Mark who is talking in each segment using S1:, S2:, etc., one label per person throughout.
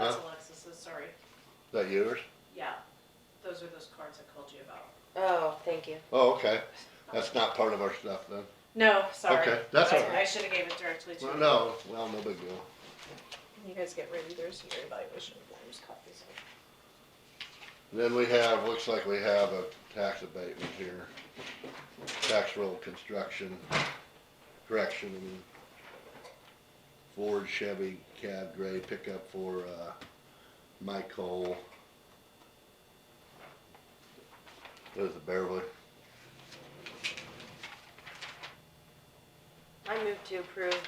S1: Oh, sorry.
S2: that yours?
S1: Yeah, those are those cards I called you about.
S3: Oh, thank you.
S2: Oh, okay, that's not part of our stuff then.
S1: No, sorry.
S2: Okay, that's all
S1: I
S2: right.
S1: should have gave it directly to you.
S2: Well, no, well, no big deal.
S4: You guys get ready, there's your evaluation forms, copies. of-
S2: Then we have, looks like we have a tax abatement here. Tax roll construction, correction, Ford Chevy cab gray pickup for, uh, Mike Cole. There's the Bearwood.
S3: I move to approve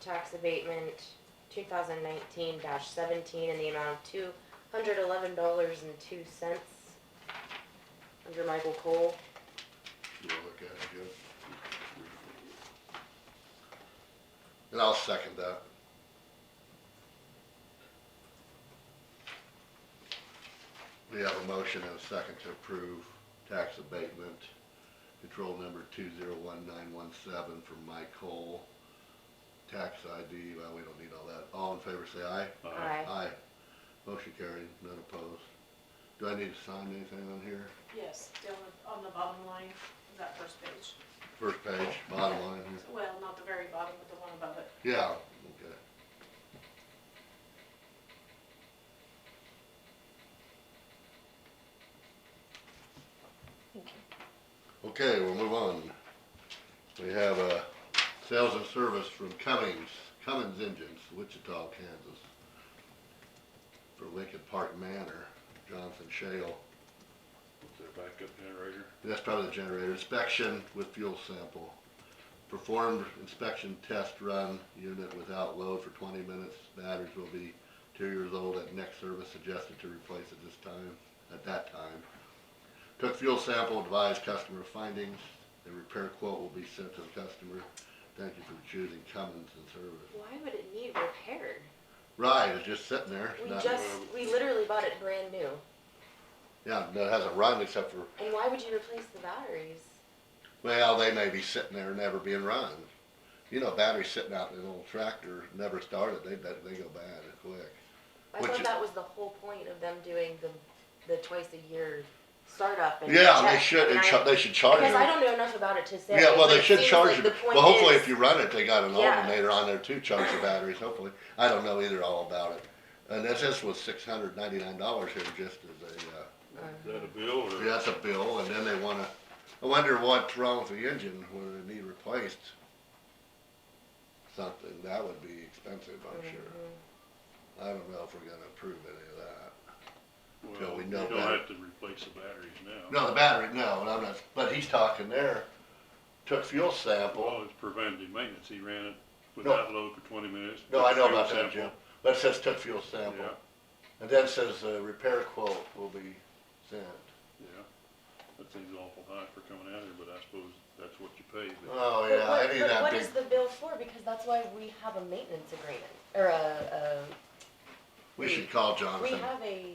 S3: tax abatement two thousand nineteen seventeen in the amount of two hundred eleven dollars and two cents under Michael Cole.
S2: You wanna look at it good? And I'll second that. We have a motion and a second to approve tax abatement, control number two zero one nine one seven for Mike Cole. Tax ID, well, we don't need all that. All in favor, say aye.
S3: Aye.
S2: Uh, Motion carried, none opposed. Do I need to sign anything on here?
S1: Yes, down the- on the bottom line of that first page.
S2: First page, bottom line here.
S1: Well, not the very bottom, but the one above it.
S2: Yeah, okay.
S4: Thank you.
S2: Okay, we'll move on. We have, uh, sales and service from Cummings, Cummins Engines, Wichita, Kansas. For Lincoln Park Manor, Johnson Shale.
S5: Their backup generator.
S2: That's probably the generator. Inspection with fuel sample. Performed inspection test run unit without load for twenty minutes. Batteries will be two years old at next service suggested to replace at this time, at that time. Took fuel sample, advised customer findings. The repair quote will be sent to the customer. Thank you for choosing Cummins and Service.
S3: Why would it need repair?
S2: Right, it's just sitting there.
S3: We
S2: not-
S3: just, we literally bought it brand new.
S2: Yeah, no, it hasn't run except for,
S3: And why would you replace the batteries?
S2: well, they may be sitting there never being run. You know, batteries sitting out in an old tractor, never started, they, they go bad quick.
S3: I
S2: Which
S3: thought
S2: is-
S3: that was the whole point of them doing the, the twice a year startup and
S2: Yeah, they
S3: check,
S2: should,
S3: and
S2: and
S3: I-
S2: cha- they should charge
S3: Because I
S2: them.
S3: don't know enough about it to say.
S2: Oh, Yeah, well,
S3: but
S2: they
S3: it
S2: should
S3: seems
S2: charge
S3: like
S2: them.
S3: the point
S2: Well, hopefully
S3: is-
S2: if you run it, they got an
S3: Yeah.
S2: alternator on there to charge the batteries, hopefully. I don't know either all about it. And this, this was six hundred ninety-nine dollars here just as a,
S5: Is that a bill
S2: uh,
S5: or?
S2: that's a bill, and then they wanna, I wonder what's wrong with the engine, whether it need replaced. Something, that would be expensive, I'm sure.
S3: Mhm.
S2: I don't know if we're gonna approve any of that.
S5: Well,
S2: till we
S5: you
S2: know
S5: don't
S2: better.
S5: have to replace the batteries now.
S2: No, the battery, no, and I'm not, but he's talking there, took fuel sample.
S5: Well, it's preventative maintenance. He ran it without load for twenty minutes.
S2: No,
S5: took
S2: I
S5: a
S2: know
S5: fuel
S2: about that, Jim.
S5: sample.
S2: But it says took fuel sample.
S5: Yeah,
S2: And then it says uh repair quote will be sent.
S5: yeah. That seems awful high for coming out here, but I suppose that's what you pay. but-
S2: Oh,
S3: But
S2: yeah,
S3: what-
S2: any of
S3: but
S2: that
S3: what
S2: big,
S3: is the bill for? Because that's why we have a maintenance agreement, or a,
S2: we should call
S3: a, we
S2: Jonathan.
S3: have a,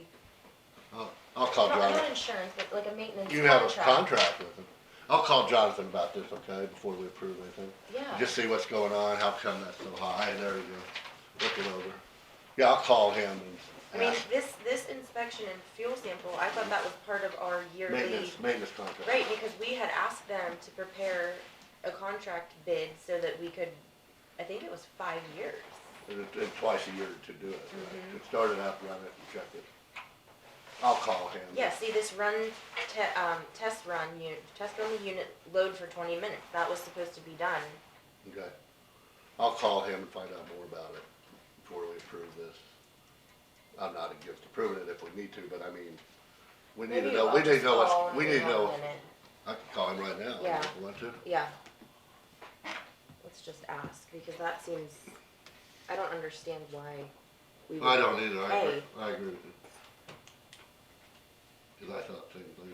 S2: I'll, I'll call
S3: not, not
S2: Jonathan.
S3: insurance, but like a maintenance contract.
S2: You have a contract with him. I'll call Jonathan about this, okay, before we approve anything.
S3: Yeah,
S2: Just see what's going on, how come that's so high, there you go. Look it over. Yeah, I'll call him
S3: I
S2: and
S3: mean,
S2: ask.
S3: this, this inspection and fuel sample, I thought that was part of our yearly.
S2: Maintenance, maintenance contract.
S3: Right, because we had asked them to prepare a contract bid so that we could, I think it was five years.
S2: And it- and twice a year to do it, right?
S3: Mm-hmm.
S2: It started out, run it, and check it. I'll call him.
S3: Yeah, see, this run, te- um, test run unit, test run the unit load for twenty minutes, that was supposed to be done.
S2: Okay. I'll call him and find out more about it before we approve this. I'm not against approving it if we need to, but I mean, we need to
S3: Maybe
S2: know,
S3: I'll
S2: we need to
S3: just
S2: know
S3: call
S2: what's,
S3: and
S2: we need to
S3: we'll
S2: know,
S3: in it.
S2: I can call him right now
S3: Yeah.
S2: if I want to.
S3: Yeah. Let's just ask, because that seems, I don't understand why we would.
S2: I don't either, I agree,
S3: Hey.
S2: I agree with you. Cause I thought same thing.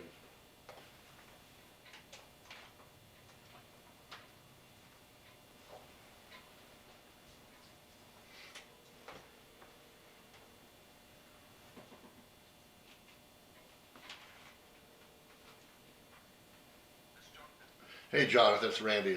S2: Hey Jonathan, it's Randy